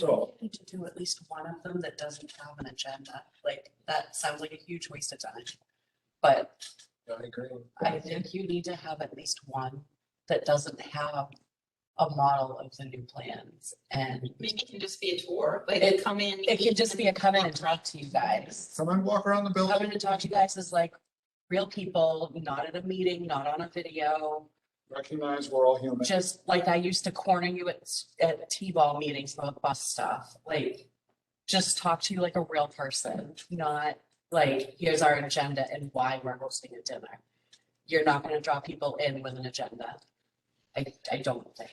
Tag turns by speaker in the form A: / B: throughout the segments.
A: So,
B: Need to do at least one of them that doesn't have an agenda, like, that sounds like a huge waste of time. But
A: I agree.
B: I think you need to have at least one that doesn't have a model of the new plans. And
C: Maybe it can just be a tour,
B: It-
C: like come in.
B: it could just be a come in and talk to you guys.
A: Someone walk around the
B: Coming
A: building,
B: to talk to you guys is like real people, not at a meeting, not on a video.
A: recognize we're all human.
B: Just like I used to corner you at, s- at T-ball meetings about bus stuff, like, just talk to you like a real person, not like, here's our agenda and why we're hosting a dinner. You're not gonna draw people in with an agenda. I, I don't think.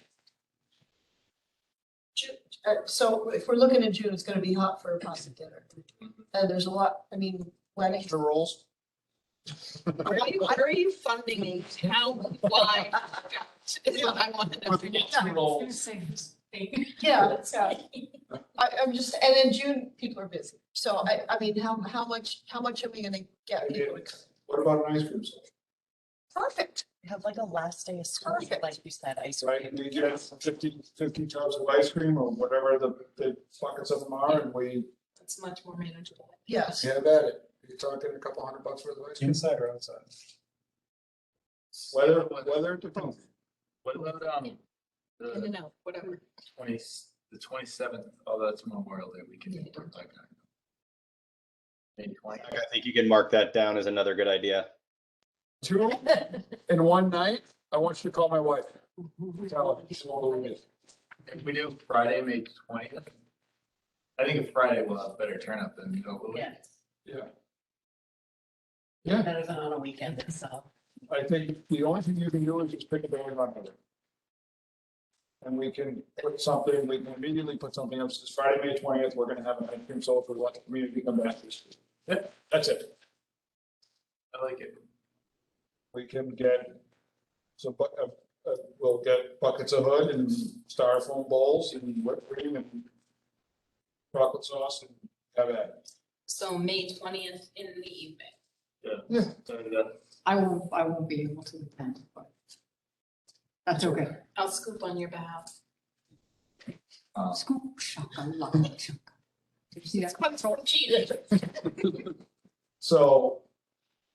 D: Uh, so if we're looking at June, it's gonna be hot for a pasta dinner. And there's a lot, I mean, wedding.
A: The rules.
C: Where are you- where are you funding these? How, why? Is what I want to know.
A: With the rules.
D: Yeah, yeah. I, I'm just, and in June, people are busy. So I, I mean, how, how much, how much are we gonna get people to come?
A: What about an ice cream? session?
D: Perfect.
B: Have like a last day of school,
D: Perfect.
B: like you said, ice
A: Right,
B: cream.
A: we get 50 50 tubs of ice cream or whatever the, the buckets of them are and we
C: It's much more manageable.
D: Yes.
A: have at it. You're talking a couple hundred bucks worth of ice cream.
E: Inside or outside?
A: Whether, whether it depends.
F: What about, um,
C: In
F: the
C: and out, whatever.
F: twenty, the twenty-seventh, oh, that's Memorial Day weekend.
C: Yeah.
F: Maybe twenty.
G: I think you can mark that down as another good idea.
A: Two of them in one night, I want you to call my wife. Tell her she's all over me.
F: If we do Friday, May twentieth, I think Friday will have better turnout than the middle of the week.
B: Yeah,
A: Yeah. Yeah,
B: better than on a weekend itself.
A: I think the only thing you can do is just pick a day and run with it. And we can put something, we can immediately put something up, since Friday, May twentieth, we're gonna have an ice cream social, we want the community to come back. this week. Yeah, that's it.
F: I like it.
A: We can get some, bu- uh, uh, we'll get buckets of hood and styrofoam bowls and whipped cream and chocolate sauce and have at it.
C: So May twentieth in the evening.
A: Yeah.
F: So that-
H: I will, I won't be able to attend, but that's okay.
C: I'll scoop on your behalf.
F: um,
H: Scoop, shaka, laka, shaka. Did you see that?
A: So,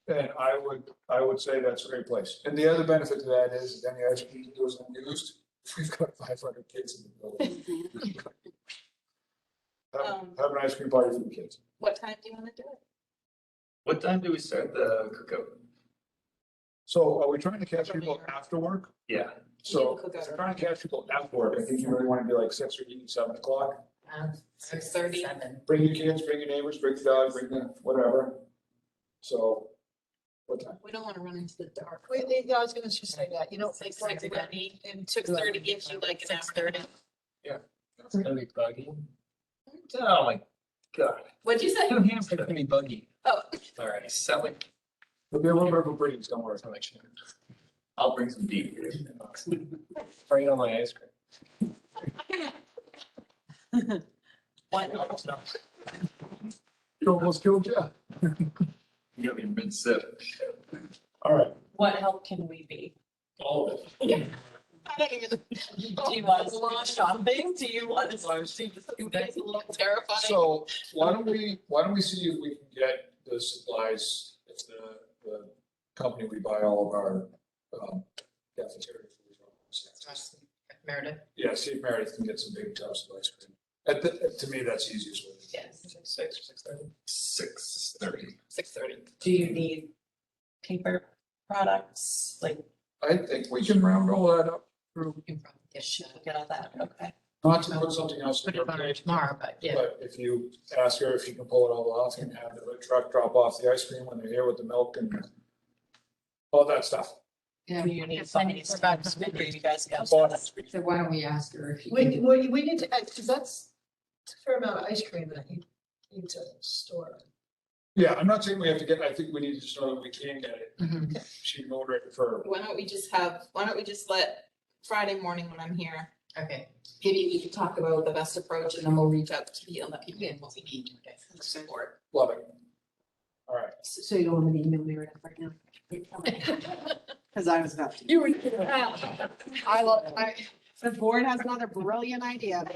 A: and I would, I would say that's a great place. And the other benefit to that is, is any ice cream that goes unused, we've got five hundred kids in the building. Have,
C: Um,
A: have an ice cream party for the kids.
C: What time do you want to do it?
F: What time do we start the cookout?
A: So are we trying to catch people after work?
F: Yeah,
A: So
C: Yeah,
A: if we're trying to catch people after work, I think you really want to be like six or eight, seven o'clock.
C: Six thirty.
A: Bring your kids, bring your neighbors, bring the dog, bring the whatever. So, what time?
C: We don't want to run into the dark.
D: Wait, they- I was gonna just say that, you know.
C: Six thirty. Six thirty gives you like an hour and a half.
E: It's gonna be buggy.
F: oh my god.
C: What'd you say?
E: New Hampshire's gonna be buggy.
C: Oh.
F: All right, selling,
A: There'll be a little bit of a breeze, don't worry.
F: I'll bring some beef.
E: Bring on my ice cream.
B: What,
A: You almost killed Jeff.
F: You got me mid-sip.
A: All right,
B: what help can we be?
A: all of it.
C: I don't even.
B: Do you want us to go shopping? Do you want us to?
C: You guys a little terrifying.
A: So why don't we, why don't we see if we can get the supplies, if the, the company we buy all of our, um, cafeteria. food from.
C: Meredith.
A: Yeah, see if Meredith can get some big tubs of ice cream. At the, to me, that's the easiest way.
C: Yes, six, six thirty.
F: Six thirty.
C: Six thirty.
B: Do you need paper products? Like,
A: I think we can round all that up through,
C: You probably
B: should we get all that? Okay.
A: not to put something else in
C: Put
A: your
C: it on her
A: page,
C: tomorrow, but yeah.
A: but if you ask her if she can pull it all off and have the truck drop off the ice cream when they're here with the milk and all that stuff.
H: Yeah,
B: Do you need
H: I
B: somebody
H: need to-
B: to back to me? You guys got
A: Boss.
H: So why don't we ask her if she
D: We,
H: can?
D: we, we need to, add- cause that's it's a fair amount of ice cream that you need to store.
A: Yeah, I'm not saying we have to get, I think we need to just know that we can get it.
H: Mhm.
A: She can order it for
C: Why don't we just have, why don't we just let Friday morning when I'm here,
H: Okay.
C: maybe we can talk about the best approach and then we'll reach out to the other people and what we need to support.
A: Love it. All right.
H: So you don't want to email me right now? Because I was about to.
B: You were. I
H: I love, I, The board has another brilliant idea.